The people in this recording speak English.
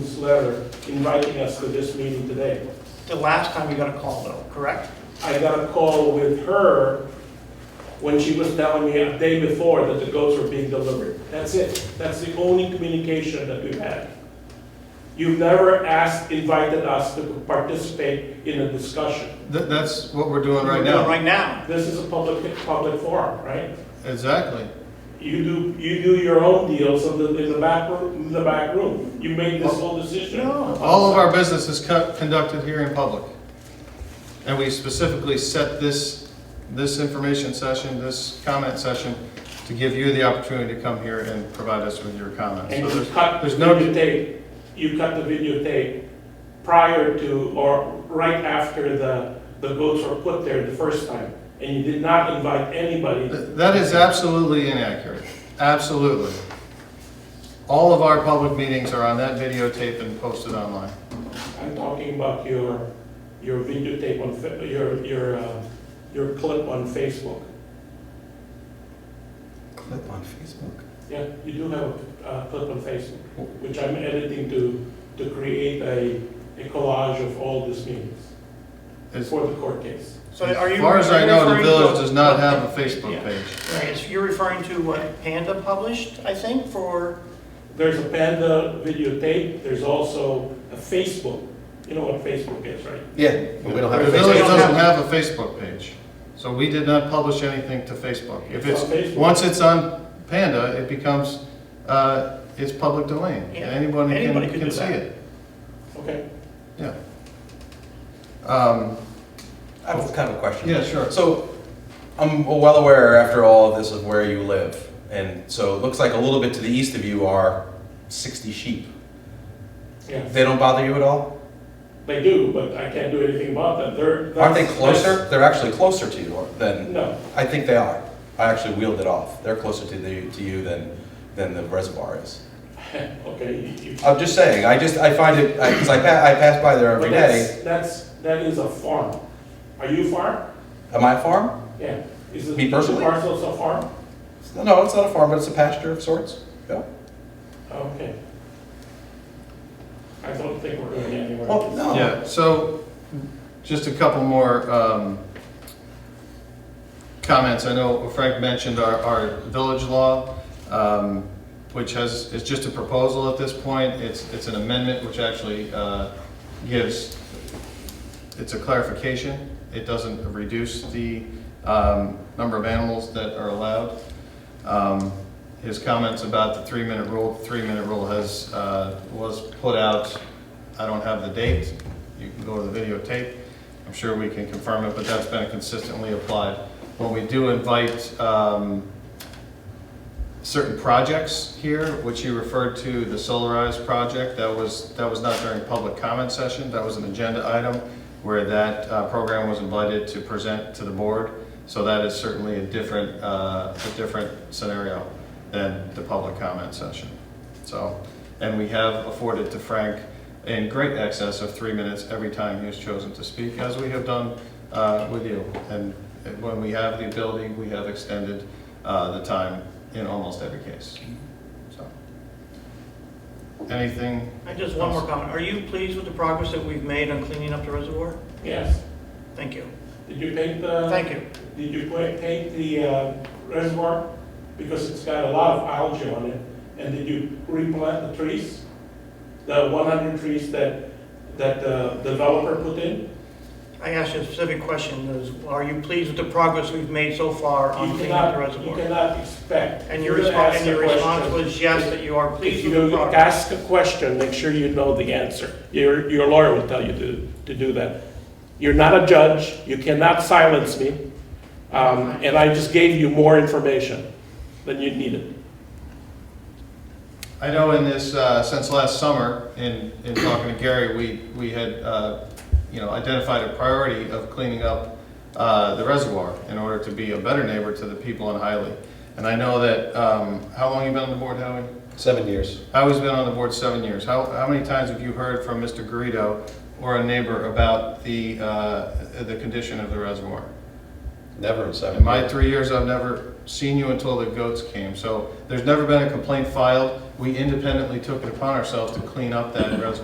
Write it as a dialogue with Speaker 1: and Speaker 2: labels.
Speaker 1: letter inviting us to this meeting today.
Speaker 2: The last time you got a call though, correct?
Speaker 1: I got a call with her when she was telling me a day before that the goats were being delivered. That's it. That's the only communication that we've had. You've never asked, invited us to participate in a discussion.
Speaker 3: Th- That's what we're doing right
Speaker 2: We're doing it
Speaker 3: now.
Speaker 2: Right now.
Speaker 1: This is a public, public forum, right?
Speaker 3: Exactly.
Speaker 1: You do, you do your own deals in the, in the back room, in the back room. You made this whole decision.
Speaker 2: No.
Speaker 3: All of our business is cut- conducted here in public. And we specifically set this, this information session, this comment session, to give you the opportunity to come here and provide us with your comments.
Speaker 1: And
Speaker 3: So
Speaker 1: you
Speaker 3: there's-
Speaker 1: cut the
Speaker 3: no-
Speaker 1: videotape, you cut the videotape prior to or right after the, the votes were put there the first time. And you did not invite anybody.
Speaker 3: th- That is absolutely inaccurate, absolutely. All of our public meetings are on that videotape and posted online.
Speaker 1: I'm talking about your, your videotape on, Fa- your, your, uh, your clip on Facebook.
Speaker 4: Clip on Facebook.
Speaker 1: Yeah, you do have a uh, clip on Facebook, which I'm editing to, to create a, a collage of all these meetings
Speaker 3: As
Speaker 1: for the court case.
Speaker 2: So are you?
Speaker 3: as far as I know,
Speaker 2: are
Speaker 3: the
Speaker 2: you
Speaker 3: village
Speaker 2: referring to-
Speaker 3: does not have a
Speaker 2: Yeah.
Speaker 3: Facebook page.
Speaker 2: Right, so you're referring to what Panda published, I think, for,
Speaker 1: There's a Panda videotape, there's also a Facebook. You know what Facebook is, right?
Speaker 4: Yeah, but we don't have
Speaker 3: The
Speaker 4: a
Speaker 3: village
Speaker 4: Facebook.
Speaker 3: doesn't have a Facebook page, so we did not publish anything to Facebook. If
Speaker 1: It's
Speaker 3: it's,
Speaker 1: on Facebook.
Speaker 3: once it's on Panda, it becomes, uh, it's public domain.
Speaker 2: Yeah,
Speaker 3: Anyone
Speaker 2: anybody
Speaker 3: can,
Speaker 2: could
Speaker 3: can
Speaker 2: do
Speaker 3: see
Speaker 2: that.
Speaker 3: it,
Speaker 1: Okay.
Speaker 3: yeah. Um,
Speaker 4: I have kind of a question.
Speaker 3: Oh. Yeah, sure.
Speaker 4: So I'm well aware, after all, this is where you live. And so it looks like a little bit to the east of you are 60 sheep.
Speaker 1: Yeah,
Speaker 4: They don't bother you at all?
Speaker 1: they do, but I can't do anything about them. They're.
Speaker 4: Aren't they
Speaker 1: that's-
Speaker 4: closer? They're actually closer to you
Speaker 1: that's-
Speaker 4: than,
Speaker 1: No,
Speaker 4: I think they are. I actually wheeled it off. They're closer to the, to you than, than the reservoir is.
Speaker 1: okay. you- you-
Speaker 4: I'm just saying, I just, I find it, because I, pa- I pass by there
Speaker 1: but
Speaker 4: every
Speaker 1: that's-
Speaker 4: day.
Speaker 1: That's, that is a farm. Are you a farm?
Speaker 4: Am I a farm?
Speaker 1: Yeah. Is it-
Speaker 4: Me
Speaker 1: is
Speaker 4: personally?
Speaker 1: the Parcels a farm?
Speaker 4: No, it's not a farm, but it's a pasture of sorts. Yeah.
Speaker 1: Okay. I don't think we're going anywhere.
Speaker 4: Well, Oh, no.
Speaker 3: yeah, so, just a couple more, um, comments. I know Frank mentioned our, our village law, um, which has, is just a proposal at this point. It's, it's an amendment which actually, uh, gives it's a clarification. It doesn't reduce the um, number of animals that are allowed. Um, His comments about the three-minute rule, three-minute rule has, uh, was put out, I don't have the date, you can go to the videotape, I'm sure we can confirm it, but that's been consistently applied. When we do invite um, certain projects here, which you referred to, the Solarize project, that was, that was not during public comment session, that was an agenda item where that uh, program was invited to present to the board. So that is certainly a different, uh, a different scenario than the public comment session. So, and we have afforded to Frank in great excess of three minutes every time he has chosen to speak, as we have done uh, with you. And when we have the ability, we have extended uh, the time in almost every case, so. Anything?
Speaker 2: I just one more comment. Are you pleased with the progress that we've made on cleaning up the reservoir?
Speaker 1: Yes.
Speaker 2: Thank you.
Speaker 1: Did you paint the?
Speaker 2: Thank you.
Speaker 1: Did you put- paint the uh, reservoir? Because it's got a lot of algae on it. And did you replant the trees? The 100 trees that, that the developer put in?
Speaker 2: I asked you a specific question, is, are you pleased with the progress we've made so far on
Speaker 1: You
Speaker 2: cleaning up the
Speaker 1: cannot, you
Speaker 2: reservoir?
Speaker 1: cannot expect.
Speaker 2: And your
Speaker 1: You're gonna
Speaker 2: response,
Speaker 1: ask
Speaker 2: and
Speaker 1: a
Speaker 2: your response
Speaker 1: question.
Speaker 2: was yes, that you are
Speaker 1: If
Speaker 2: pleased with the
Speaker 1: you ask
Speaker 2: progress.
Speaker 1: a question, make sure you know the answer. Your, your lawyer will tell you to, to do that. You're not a judge, you cannot silence me. Um, And I just gave you more information than you needed.
Speaker 3: I know in this, uh, since last summer, in, in talking to Gary, we, we had, uh, you know, identified a priority of cleaning up uh, the reservoir in order to be a better neighbor to the people in Hyley. And I know that, um, how long you been on the board, Howie?
Speaker 4: Seven years.
Speaker 3: Howie's been on the board seven years. How, how many times have you heard from Mr. Garrido or a neighbor about the, uh, the condition of the reservoir?
Speaker 4: Never in seven
Speaker 3: In my three years, I've never seen you until the goats came, so there's never been a complaint filed. We independently took it upon ourselves to clean up that reservoir.